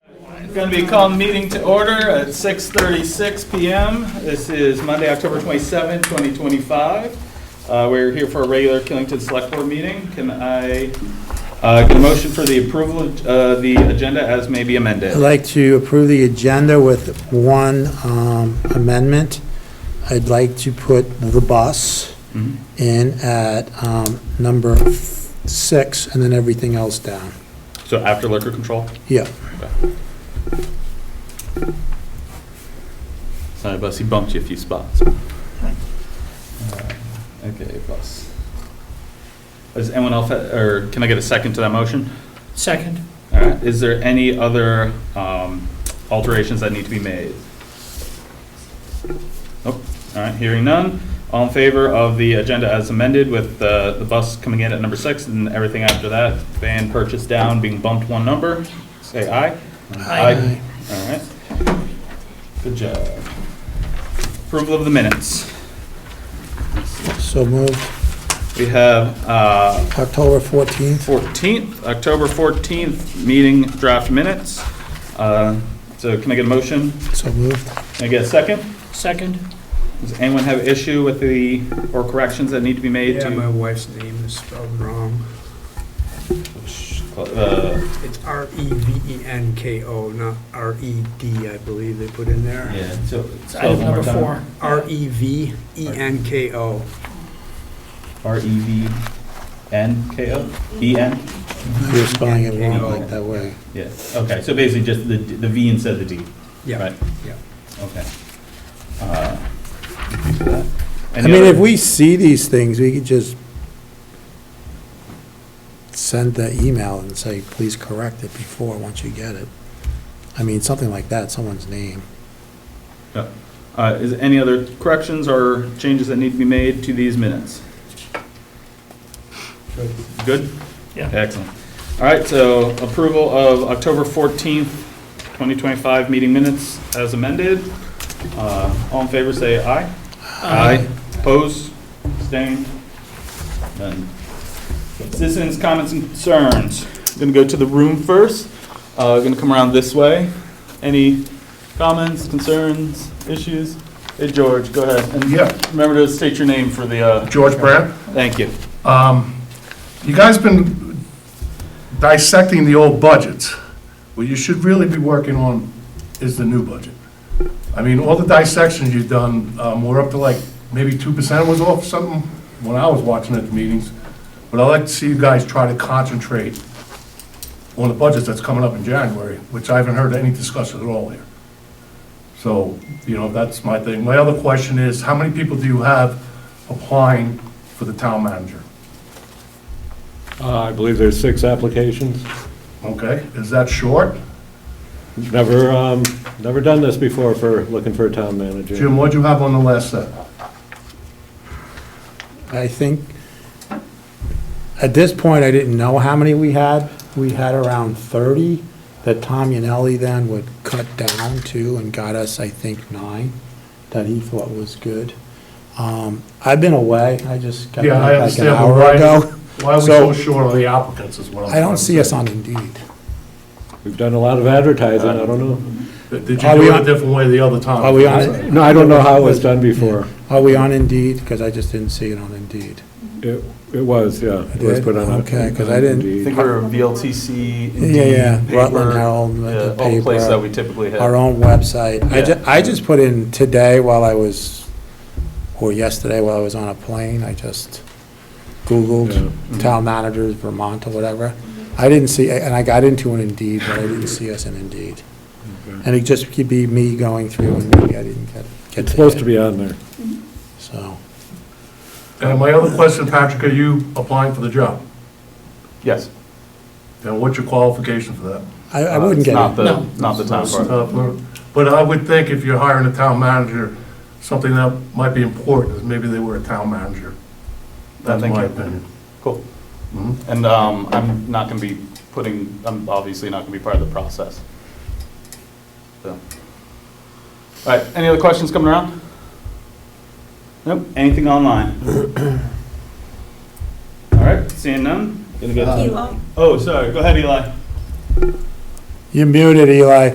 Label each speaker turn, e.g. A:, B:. A: Going to be called meeting to order at 6:36 PM. This is Monday, October 27, 2025. Uh, We're here for a regular Killington Select Board meeting. Can I uh, get a motion for the approval of uh, the agenda as may be amended?
B: I'd like to approve the agenda with one um, amendment. I'd like to put the bus
A: Mhm.
B: in at um, number six and then everything else down.
A: So after liquor control?
B: Yeah,
A: Sorry, bus, he bumped you a few spots. Uh, Okay, bus. Does anyone else, or can I get a second to that motion?
C: Second.
A: All right, is there any other um, alterations that need to be made? Nope, all right, hearing none. All in favor of the agenda as amended with the, the bus coming in at number six and everything after that, van purchase down, being bumped one number, say aye.
C: Aye.
A: All right. Good job. Approval of the minutes.
B: so moved.
A: We have uh,
B: October 14th,
A: 14th, October 14th, meeting draft minutes. Uh, So can I get a motion?
B: so moved.
A: Can I get a second?
C: Second.
A: Does anyone have issue with the, or corrections that need to be made
D: Yeah, my
A: to?
D: wife's name is spelled wrong.
A: Uh,
D: It's R E V E N K O, not R E D, I believe they put in there.
A: Yeah, so.
C: It's item
A: so one more
C: number
A: time.
C: four.
D: R E V E N K O.
A: R E V N K O? E N?
B: You're spelling it wrong like that way.
A: Yeah, okay, so basically just the, the V instead of the D,
D: Yeah,
A: right?
D: yeah.
A: Okay. Uh,
B: I
A: any
B: mean, if
A: other-
B: we see these things, we could just send the email and say, please correct it before, once you get it. I mean, something like that, someone's name.
A: Uh, Is any other corrections or changes that need to be made to these minutes? Good?
C: Yeah.
A: Excellent. All right, so approval of October 14th, 2025 meeting minutes as amended. Uh, All in favor, say aye. Opposed? Abstained? None. Citizens' comments and concerns. Going to go to the room first. Going to come around this way. Any comments, concerns, issues? Hey, George, go ahead. And
E: Yeah.
A: Remember to state your name for the, uh,
E: George Brad,
A: thank you.
E: um, you guys been dissecting the old budgets. What you should really be working on is the new budget. I mean, all the dissections you've done, um, we're up to like, maybe two percent was off something when I was watching at the meetings. But I like to see you guys try to concentrate on the budgets that's coming up in January, which I haven't heard any discussion at all here. So, you know, that's my thing. My other question is, how many people do you have applying for the town manager?
F: Uh, I believe there's six applications.
E: Okay, is that short?
F: Never, um, never done this before for, looking for a town manager.
E: Jim, what'd you have on the last set?
B: I think, at this point, I didn't know how many we had. We had around 30 that Tom Yanelli then would cut down to and got us, I think, nine that he thought was good. Um, I've been away, I just got
E: Yeah, I
B: back like an
E: understand, but
B: hour
E: why-
B: ago.
E: Why are we
B: So-
E: so short on the applicants is what I'm.
B: I don't see us
E: trying
B: on Indeed.
F: We've done a lot of advertising, I don't know.
E: to say. Did
B: Are
E: you
B: we
E: do it
B: on-
E: a different way the other time?
B: Are we on it?
F: No, I don't know how it was done before.
B: Are we on Indeed? Because I just didn't see it on Indeed.
F: It, it was, yeah. It was
B: Did?
F: put on.
B: Okay, 'cause I didn't-
A: I
F: Indeed.
A: think we're a VLTC.
B: Yeah, yeah,
A: Indeed,
B: Rutland
A: paper,
B: Herald, the
A: yeah, All place
B: paper,
A: that we typically hit.
B: our own website. I
A: Yeah.
B: ju, I just put in today while I was, or yesterday while I was on a plane, I just Googled
F: Yeah.
B: town managers, Vermont or whatever. I didn't see, and I got into an Indeed, but I didn't see us in Indeed.
F: Okay.
B: And it just could be me going through and maybe I didn't get, get
F: It's supposed
B: it,
F: to be on there.
B: So,
E: And my other question, Patrick, are you applying for the job?
A: Yes.
E: And what's your qualification for that?
B: I, I
A: Uh,
B: wouldn't
A: it's
B: get
A: Not
B: it.
A: the, not the town part.
E: Uh, for- But I would think if you're hiring a town manager, something that might be important is maybe they were a town manager. That's
A: Thank
E: my
A: you.
E: opinion.
A: Cool.
E: Mhm.
A: And um, I'm not going to be putting, I'm obviously not going to be part of the process. So. All right, any other questions coming around? Nope, anything online? All right, seeing none? Gonna go to-
G: Eli.
A: Oh, sorry, go ahead, Eli.
B: You're muted, Eli.